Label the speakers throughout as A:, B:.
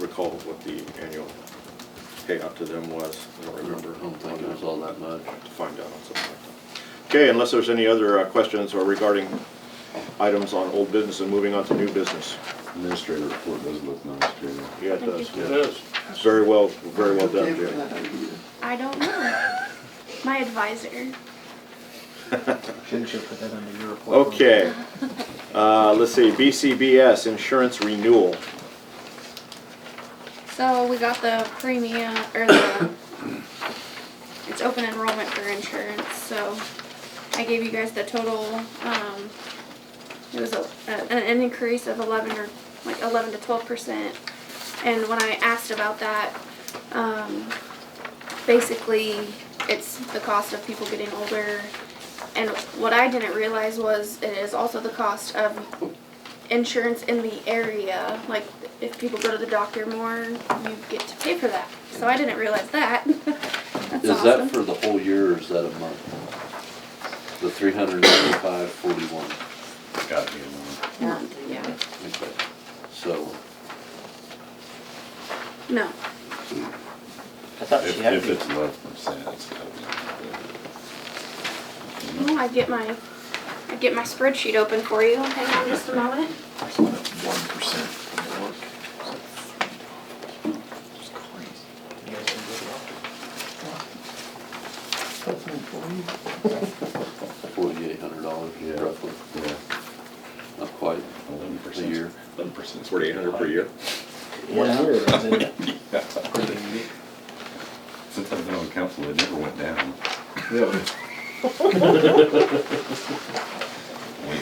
A: recall what the annual payout to them was, I don't remember.
B: I don't think it was all that much.
A: Have To find out on something like that. Okay, unless there's any other uh, questions or regarding items on old business and moving on to new business.
C: Administrator report does look nice, Jamie.
A: Yeah, it does.
B: It is.
A: Very well, very well done, Jim.
D: I don't know. My advisor.
E: Shouldn't you put that under your report?
A: Okay. Uh, let's see, BCBS insurance renewal.
D: So we got the premium or the it's open enrollment for insurance. So I gave you guys the total. Um, it was a, a, an increase of eleven or like eleven to twelve percent. And when I asked about that, um, basically it's the cost of people getting older. And what I didn't realize was it is also the cost of insurance in the area. Like if people go to the doctor more, you get to pay for that. So I didn't realize that. That's
B: Is
D: awesome.
B: that for the whole year or is that a month? The three hundred ninety-five forty-one.
C: Gotta be one.
D: Month, yeah.
B: Okay. So,
D: No.
E: I thought she
C: If,
E: had.
C: if
E: to-
C: it's eleven percent, it's gotta be one.
D: No, I get my I get my spreadsheet open for you. Hang on just a moment.
C: One percent.
E: It's crazy. You guys can go to the doctor.
B: forty-eight hundred dollars
C: Yeah.
B: roughly,
C: Yeah.
B: not quite.
C: Eleven percent.
B: A year.
C: Eleven percent.
A: Forty-eight hundred per year.
E: One year, isn't it? Pretty neat.
C: Since I've been on council, it never went down. Wait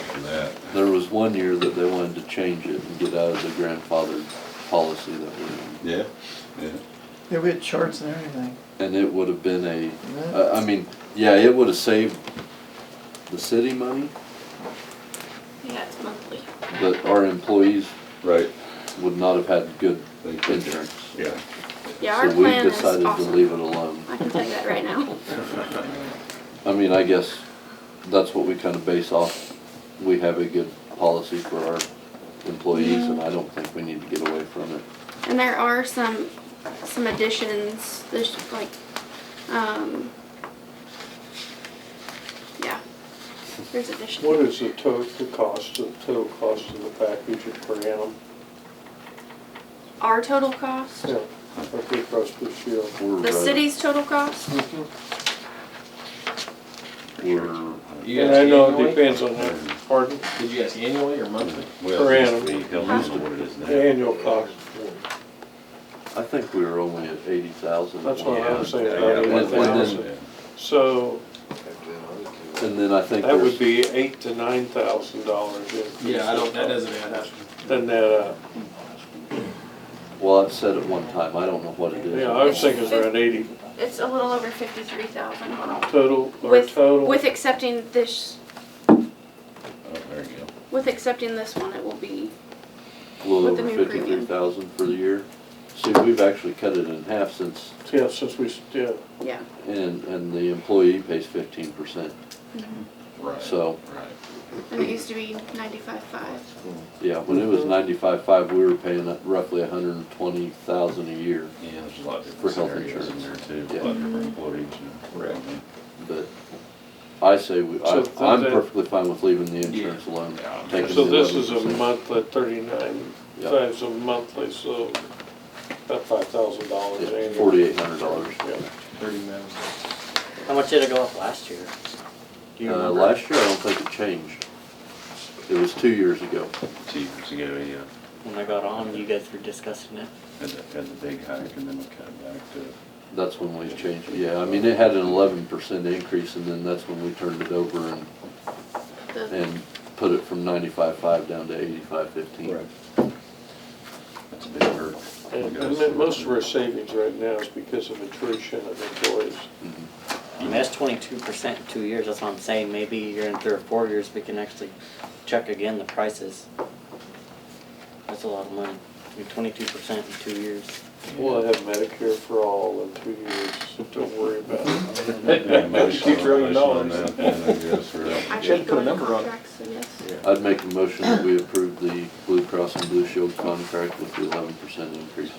C: for that.
B: There was one year that they wanted to change it and get out of the grandfathered policy that we're in.
C: Yeah, yeah.
F: Yeah, we had charts and everything.
B: And it would have been a, I I mean, yeah, it would have saved the city money,
D: Yeah, it's monthly.
B: but our employees
C: Right.
B: would not have had good
C: They could-
B: insurance.
C: Yeah.
D: Yeah, our plan is
B: So we decided to
D: awesome.
B: leave it alone.
D: I can tell you that right now.
B: I mean, I guess that's what we kind of base off. We have a good policy for our employees and I don't think we need to get away from it.
D: And there are some some additions. There's like um yeah. There's additions.
G: What is the total, the cost, the total cost of the package per annum?
D: Our total cost?
G: Yeah, like Blue Cross Blue Shield.
B: We're,
D: The
B: uh,
D: city's total cost?
B: We're,
H: You
G: And
H: guys
G: I know it
H: annually?
G: depends on, their- pardon,
H: Did you ask annually or monthly?
C: Well,
G: Per
C: it used
G: annum.
C: to be- Hell, I don't know what it is now.
G: the annual cost.
B: I think we were only at eighty thousand.
G: That's what I was saying,
C: Yeah,
G: about
C: yeah,
G: eight
B: And
G: thousand.
B: then,
C: yeah.
G: So
B: and then I think
G: that would
B: there's,
G: be eight to nine thousand dollars increase.
H: Yeah, I don't, that doesn't add up.
G: Then that, uh,
B: well, I've said it one time, I don't know what it is.
G: yeah, I was thinking it's around eighty
D: It's a little over fifty-three thousand.
G: total, or
D: With
G: total.
D: with accepting this
C: Oh, there you go.
D: with accepting this one it will be
B: A little
D: With
B: over
D: the new premium.
B: fifty-three thousand for the year. See, we've actually cut it in half since,
G: Yeah, since we, s- yeah,
D: yeah.
B: and, and the employee pays fifteen percent.
C: Right.
B: So-
C: Right.
D: And it used to be ninety-five five.
B: Yeah, when it was
G: Mm-hmm.
B: ninety-five-five, we were paying uh, roughly a hundred and twenty thousand a year,
C: Yeah, there's a lot of different
B: For health
C: scenarios in there
B: insurance.
C: too,
B: Yeah.
C: a lot of different employees and.
A: Right.
B: but I say, we- I,
G: So th-
B: I'm
G: that-
B: perfectly fine with leaving the insurance alone.
C: Yeah, I'm
B: taking
G: so
B: the
G: this is a
B: 11%.
G: month at thirty-nine
B: Yeah.
G: times a monthly, so about five thousand dollars
B: Yeah,
G: annually.
B: forty-eight hundred dollars.
G: Yeah.
H: Thirty minutes.
E: How much did it go up last year? Do you
B: Uh,
E: remember?
B: last year, I don't think it changed. It was two years ago.
C: Two years ago, yeah,
E: When I got on, you guys were discussing it.
C: uh, had the, had the big hike and then we cut it back to.
B: That's when we changed, it. yeah, I mean, it had an eleven percent increase, and then that's when we turned it over and,
D: The,
B: and put it from ninety-five-five down to eighty-five-fifteen.
C: That's a big hurt.
G: And and then most of our savings right now is because of attrition of employees.
B: Mm-hmm.
E: I mean, that's twenty-two percent in two years, that's what I'm saying, maybe year in three or four years, we can actually check again the prices. That's a lot of money, twenty-two percent in two years.
G: We'll have Medicare for all in two years, so don't worry about it.
C: Two
H: trillion dollars.
D: I
C: dollars.
H: put a
D: should go into
H: number on it.
D: contracts, so yes.
B: I'd make a motion that we approve the Blue Cross and Blue Shield contract with the eleven percent increase.